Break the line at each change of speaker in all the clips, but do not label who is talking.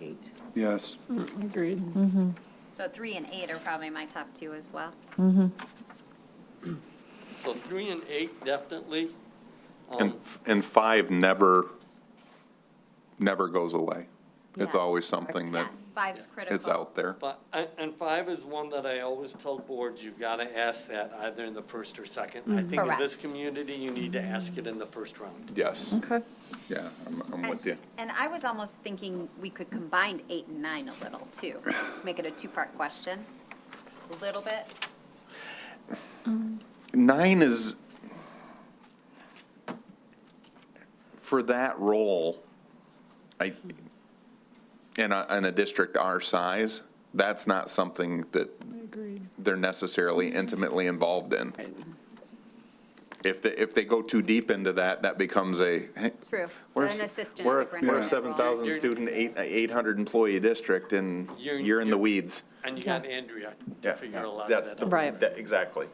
Eight.
Yes.
Agreed.
So three and eight are probably my top two as well.
So three and eight, definitely.
And,
Um,
and five never, never goes away.
Yes.
It's always something that
Yes, five's critical.
it's out there.
But, and- and five is one that I always tell boards, you've got to ask that either in the first or second. I think in
Correct.
this community, you need to ask it in the first round.
Yes,
Okay.
yeah, I'm, I'm
And-
with you.
And I was almost thinking we could combine eight and nine a little too, make it a two-part question, a little bit.
Nine is, for that role, I, in a, in a district our size, that's not something that
Agreed.
they're necessarily intimately involved in.
Right.
If they, if they go too deep into that, that becomes a, hey,
True.
We're
An
s-
assistant
we're- We're a
superintendent role.
7,000
You're-
student, eight- 800 employee district, and
You're-
you're in the
you're-
weeds.
And you got Andrea to figure a lot of
That's
that
the-
out.
Right.
that- Exactly.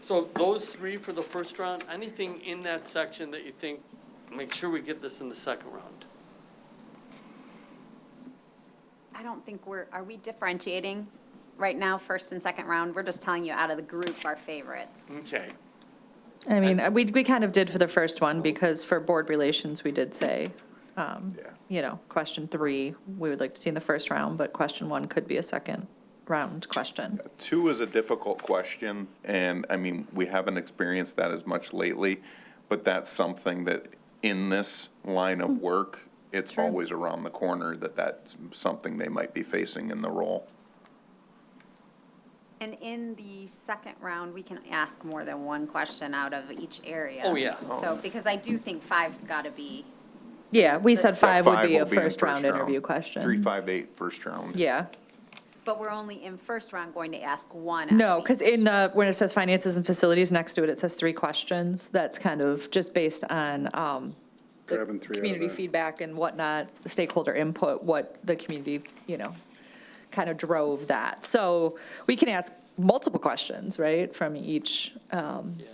So those three for the first round, anything in that section that you think, make sure we get this in the second round?
I don't think we're, are we differentiating right now, first and second round? We're just telling you out of the group our favorites.
Okay.
I mean, we, we kind of did for the first one, because for board relations, we did say, um,
Yeah.
you know, question three, we would like to see in the first round, but question one could be a second round question.
Two is a difficult question, and, I mean, we haven't experienced that as much lately, but that's something that, in this line of work, it's
Sure.
always around the corner that that's something they might be facing in the role.
And in the second round, we can ask more than one question out of each area.
Oh, yeah.
So, because I do think five's got to be,
Yeah, we said
That
five would be
will
a
in
first round interview
Three,
question.
five, eight, first round.
Yeah,
but we're only in first round going to ask one. out of
no, because
each.
in the, when it says finances and facilities, next to it, it says three questions. That's kind of just based on, um, the
Grabbing three out of
Community
that.
feedback and whatnot, the stakeholder input, what the community, you know, kind of drove that. So we can ask multiple questions, right, from each, um,
Yeah,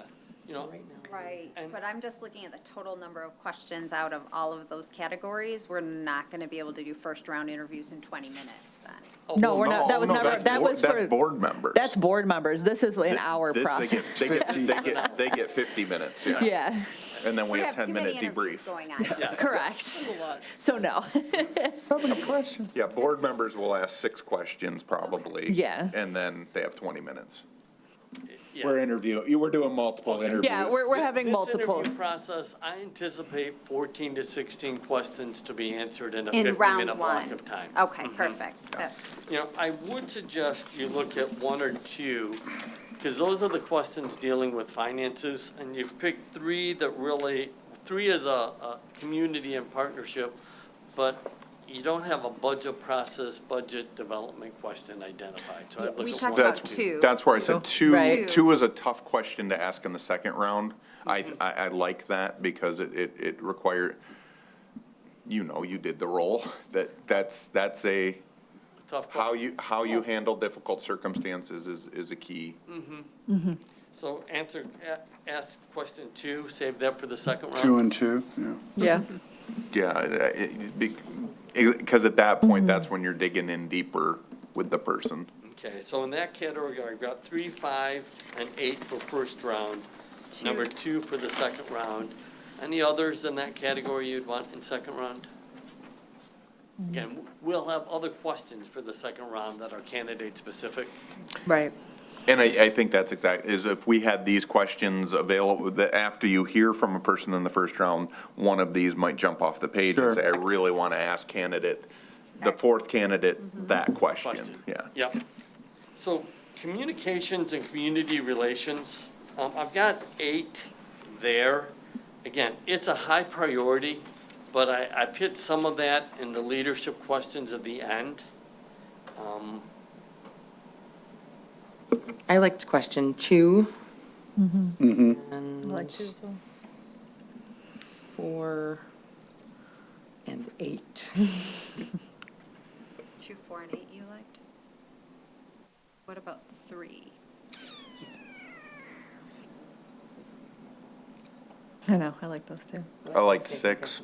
you know,
Right,
And-
but I'm just looking at the total number of questions out of all of those categories. We're not going to be able to do first round interviews in 20 minutes then.
oh,
no, we're
No,
not, that was
no,
never,
that's
that
board-
was
That's
for,
board members.
that's board members. This is an hour
This, they
process.
get- They get, they get, they get 50 minutes, yeah.
Yeah,
And then we have
too many
10-minute
interviews
debrief.
Going on.
yes.
correct. So no,
So many questions.
Yeah, board members will ask six questions probably.
Yeah.
And then they have 20 minutes.
Yeah.
We're interviewing, you were doing multiple interviews.
yeah, we're, we're having multiple.
This interview process, I anticipate 14 to 16 questions to be answered in a
In round
50-minute block
one. Oh.
of time. Mm-hmm.
Okay, perfect. That-
You know, I would suggest you look at one or two, because those are the questions dealing with finances, and you've picked three that really, three is a, a community and partnership, but you don't have a budget process, budget development question identified, so
Yeah,
I'd look
we
at one.
talked
or
about
two.
That's,
Two.
that's where I said two,
Right.
two is a tough question to ask in the second round.
Mm-hmm.
I, I, I like that because it, it, it required, you know, you did the role, that, that's, that's a,
Tough
how
question.
you, how you handle difficult circumstances is, is a key.
So answer, a- ask question two, save that for the second round.
Two and two, yeah.
Yeah,
Yeah, because at that point, that's when you're digging in deeper with the person.
Okay, so in that category, I've got three, five, and eight for first round, number two for the second round. Any others in that category you'd want in second round? Again, we'll have other questions for the second round that are candidate-specific.
right.
And I, I think that's exact, is if we had these questions available, that after you hear from a person in the first round, one of these might jump off the page and
Sure.
say, I really want to ask candidate, the fourth candidate, that question.
Question.
Yeah.
Yep. So communications and community relations, um, I've got eight there. Again, it's a high priority, but I, I've hit some of that in the leadership questions at the end. Um,
I liked question two.
Mm-hmm.
I
And
like two as well.
four and eight.
Two, four, and eight you liked? What about three?
I know, I like those too.
I liked six.